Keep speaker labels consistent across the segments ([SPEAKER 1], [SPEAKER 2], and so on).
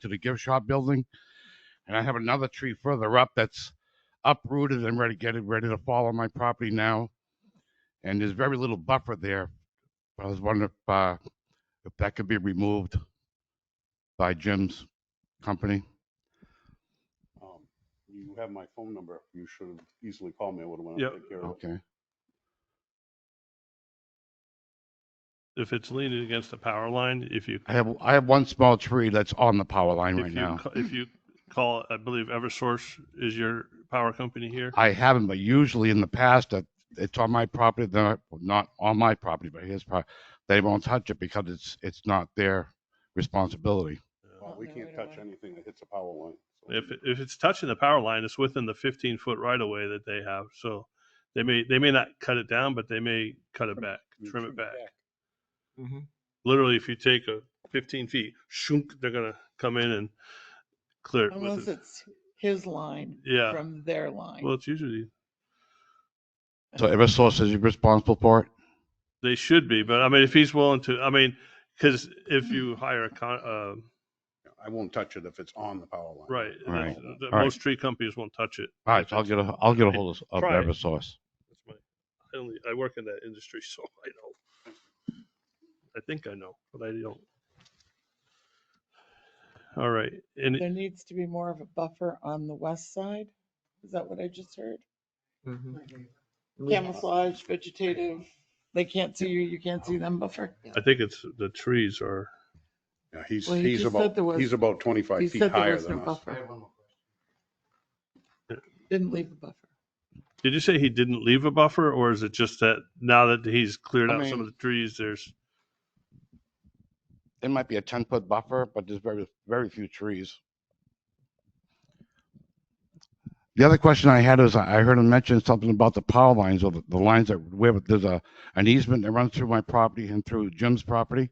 [SPEAKER 1] to the gift shop building. And I have another tree further up that's uprooted and ready, getting ready to fall on my property now. And there's very little buffer there. I was wondering if, uh, if that could be removed by Jim's company.
[SPEAKER 2] Um, You have my phone number. You should have easily called me. I would have went
[SPEAKER 3] Yep.
[SPEAKER 2] and taken care of it.
[SPEAKER 1] Okay.
[SPEAKER 3] If it's leaning against the power line, if you,
[SPEAKER 1] I have, I have one small tree that's on the power line
[SPEAKER 3] if
[SPEAKER 1] right
[SPEAKER 3] you,
[SPEAKER 1] now.
[SPEAKER 3] ca- if you call, I believe Eversource is your power company here.
[SPEAKER 1] I haven't, but usually in the past, that it's on my property, then I- well, not on my property, but his property. They won't touch it because it's, it's not their responsibility.
[SPEAKER 2] Uh,
[SPEAKER 4] Oh,
[SPEAKER 2] We
[SPEAKER 4] no,
[SPEAKER 2] can't
[SPEAKER 4] we don't
[SPEAKER 2] touch
[SPEAKER 4] want-
[SPEAKER 2] anything that hits a power line. so-
[SPEAKER 3] If, it- if it's touching the power line, it's within the fifteen foot right of way that they have. So they may, they may not cut it down, but they may cut it back,
[SPEAKER 2] You
[SPEAKER 3] trim it back.
[SPEAKER 4] Mhm.
[SPEAKER 3] Literally, if you take a fifteen feet, shunk, they're gonna come in and clear it
[SPEAKER 4] Unless
[SPEAKER 3] with it.
[SPEAKER 4] it's his line
[SPEAKER 3] Yeah.
[SPEAKER 4] from their line.
[SPEAKER 3] Well, it's usually,
[SPEAKER 1] So Eversource is responsible for it?
[SPEAKER 3] they should be, but I mean, if he's willing to, I mean, cause if you hire a con, uh,
[SPEAKER 2] I won't touch it if it's on the power line.
[SPEAKER 3] Right. and
[SPEAKER 1] Right.
[SPEAKER 3] that's- the-
[SPEAKER 1] All right.
[SPEAKER 3] Most tree companies won't touch it.
[SPEAKER 1] All right, so I'll get a, I'll get a hold of of
[SPEAKER 3] Try it.
[SPEAKER 1] Eversource.
[SPEAKER 3] That's my, I only, I work in that industry, so I know. I think I know, but I don't. All right, and
[SPEAKER 4] There needs to be more of a buffer on the west side. Is that what I just heard? Camouflage, vegetative, they can't see you, you can't see them buffer.
[SPEAKER 3] I think it's, the trees are,
[SPEAKER 2] Yeah, He's,
[SPEAKER 4] Well, he
[SPEAKER 2] he's
[SPEAKER 4] just said
[SPEAKER 2] about,
[SPEAKER 4] there was-
[SPEAKER 2] he's about 25
[SPEAKER 4] You
[SPEAKER 2] feet
[SPEAKER 4] said there
[SPEAKER 2] higher
[SPEAKER 4] was no
[SPEAKER 2] than us.
[SPEAKER 4] buffer. Didn't leave a buffer.
[SPEAKER 3] did you say he didn't leave a buffer, or is it just that now that he's cleared
[SPEAKER 1] I
[SPEAKER 3] out some
[SPEAKER 1] mean-
[SPEAKER 3] of the trees, there's,
[SPEAKER 1] It might be a ten foot buffer, but there's very, very few trees. The other question I had is I I heard him mention something about the power lines or the, the lines that where there's a, an easement that runs through my property and through Jim's property.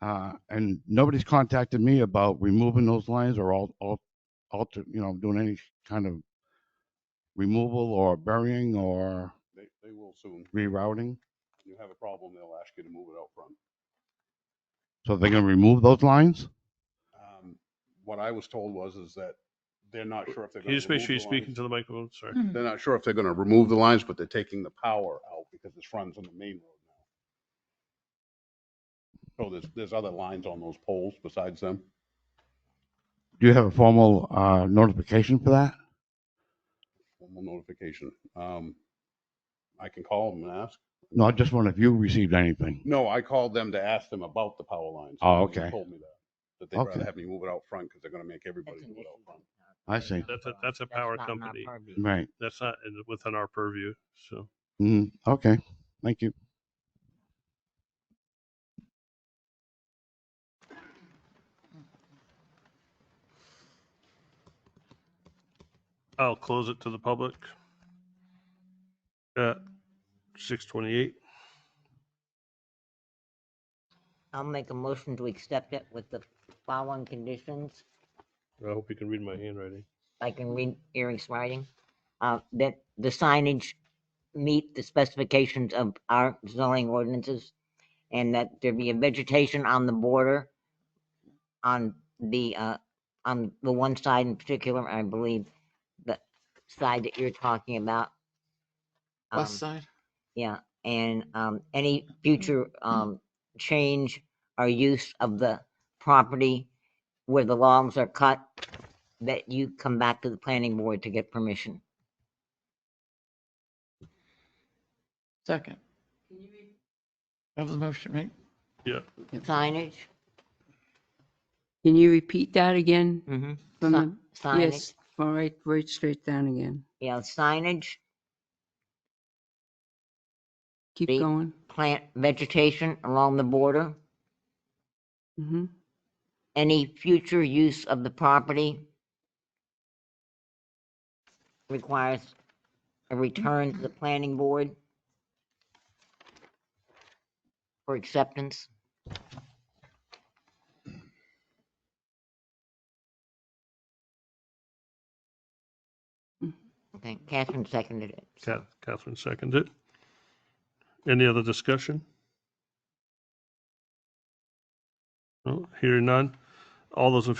[SPEAKER 1] Uh, and nobody's contacted me about removing those lines or all, all, alter, you know, doing any kind of removal or burying or
[SPEAKER 2] They, they will soon.
[SPEAKER 1] rerouting.
[SPEAKER 2] You have a problem, they'll ask you to move it out front.
[SPEAKER 1] So they're gonna remove those lines?
[SPEAKER 2] Um, What I was told was, is that they're not sure if they're
[SPEAKER 3] can
[SPEAKER 2] going
[SPEAKER 3] you
[SPEAKER 2] to.
[SPEAKER 3] just make sure you're speaking to the microphone, sorry.
[SPEAKER 4] Hmm.
[SPEAKER 2] They're not sure if they're going to remove the lines, but they're taking the power out because it's runs on the main road now. So there's, there's other lines on those poles besides them.
[SPEAKER 1] Do you have a formal, uh, notification for that?
[SPEAKER 2] formal notification. Um, I can call them and ask.
[SPEAKER 1] No, I just wonder if you received anything.
[SPEAKER 2] No, I called them to ask them about the power lines.
[SPEAKER 1] Oh,
[SPEAKER 2] and they
[SPEAKER 1] okay.
[SPEAKER 2] Told me that, that they'd rather
[SPEAKER 1] Okay.
[SPEAKER 2] have me move it out front because they're gonna make everybody
[SPEAKER 5] That's
[SPEAKER 2] do
[SPEAKER 5] an
[SPEAKER 2] it
[SPEAKER 5] issue
[SPEAKER 2] out front.
[SPEAKER 5] with
[SPEAKER 1] I see.
[SPEAKER 5] our
[SPEAKER 3] That's a-
[SPEAKER 5] firm.
[SPEAKER 3] that's a power
[SPEAKER 5] not my
[SPEAKER 3] company.
[SPEAKER 5] purview.
[SPEAKER 1] Right.
[SPEAKER 3] That's not in- within our purview, so.
[SPEAKER 1] Mm, okay. Thank you.
[SPEAKER 3] I'll close it to the public. At six twenty-eight.
[SPEAKER 5] I'll make a motion to accept it with the following conditions.
[SPEAKER 3] I hope you can read my handwriting.
[SPEAKER 5] I can read Eric's writing. Uh, that the signage meet the specifications of our zoning ordinances and that there be a vegetation on the border on the, uh, on the one side in particular, I believe, the side that you're talking about. um,
[SPEAKER 4] West side.
[SPEAKER 5] Yeah, and um, any future um, change or use of the property where the logs are cut, that you come back to the planning board to get permission.
[SPEAKER 4] Second. That was a motion, right?
[SPEAKER 3] Yeah.
[SPEAKER 5] Signage?
[SPEAKER 6] Can you repeat that again?
[SPEAKER 5] Mm-hmm.
[SPEAKER 6] from the-
[SPEAKER 5] Signage,
[SPEAKER 6] Yes, all right, right straight down again.
[SPEAKER 5] yeah, signage,
[SPEAKER 6] Keep
[SPEAKER 5] Repeat.
[SPEAKER 6] going.
[SPEAKER 5] plant vegetation along the border,
[SPEAKER 6] hmm
[SPEAKER 5] any future use of the property requires a return to the planning board for acceptance. Okay, Catherine seconded it. so-
[SPEAKER 3] Ca- Catherine seconded. Any other discussion? No, hearing none. All those in